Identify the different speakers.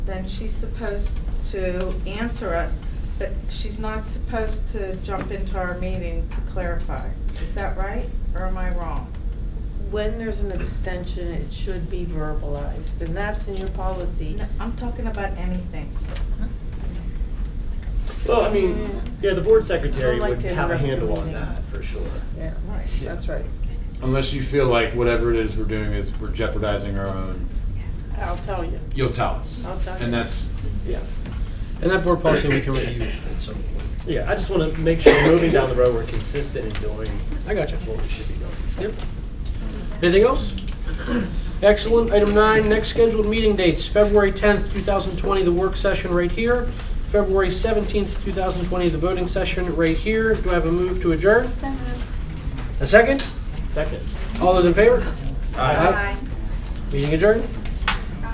Speaker 1: then she's supposed to answer us, but she's not supposed to jump into our meeting to clarify. Is that right, or am I wrong?
Speaker 2: When there's an abstention, it should be verbalized, and that's in your policy.
Speaker 1: No, I'm talking about anything.
Speaker 3: Well, I mean, yeah, the board secretary
Speaker 2: Don't like
Speaker 3: would
Speaker 2: to
Speaker 3: have a
Speaker 2: interrupt
Speaker 3: handle
Speaker 2: your
Speaker 3: on
Speaker 2: meeting.
Speaker 3: that for sure.
Speaker 2: Yeah,
Speaker 1: Right.
Speaker 2: that's right.
Speaker 4: Unless you feel like whatever it is we're doing is we're jeopardizing our own,
Speaker 2: I'll tell you.
Speaker 4: you'll tell us.
Speaker 2: I'll tell you.
Speaker 4: And that's,
Speaker 3: Yeah,
Speaker 5: And that board policy we can review at some point.
Speaker 3: yeah, I just want to make sure moving down the road, we're consistent in doing
Speaker 5: I got you.
Speaker 3: what we should be doing.
Speaker 5: Yep. Anything else? Excellent. Item nine, next scheduled meeting dates, February 10th, 2020, the work session right here. February 17th, 2020, the voting session right here. Do I have a move to adjourn? A second?
Speaker 3: Second.
Speaker 5: All those in favor? Meeting adjourned.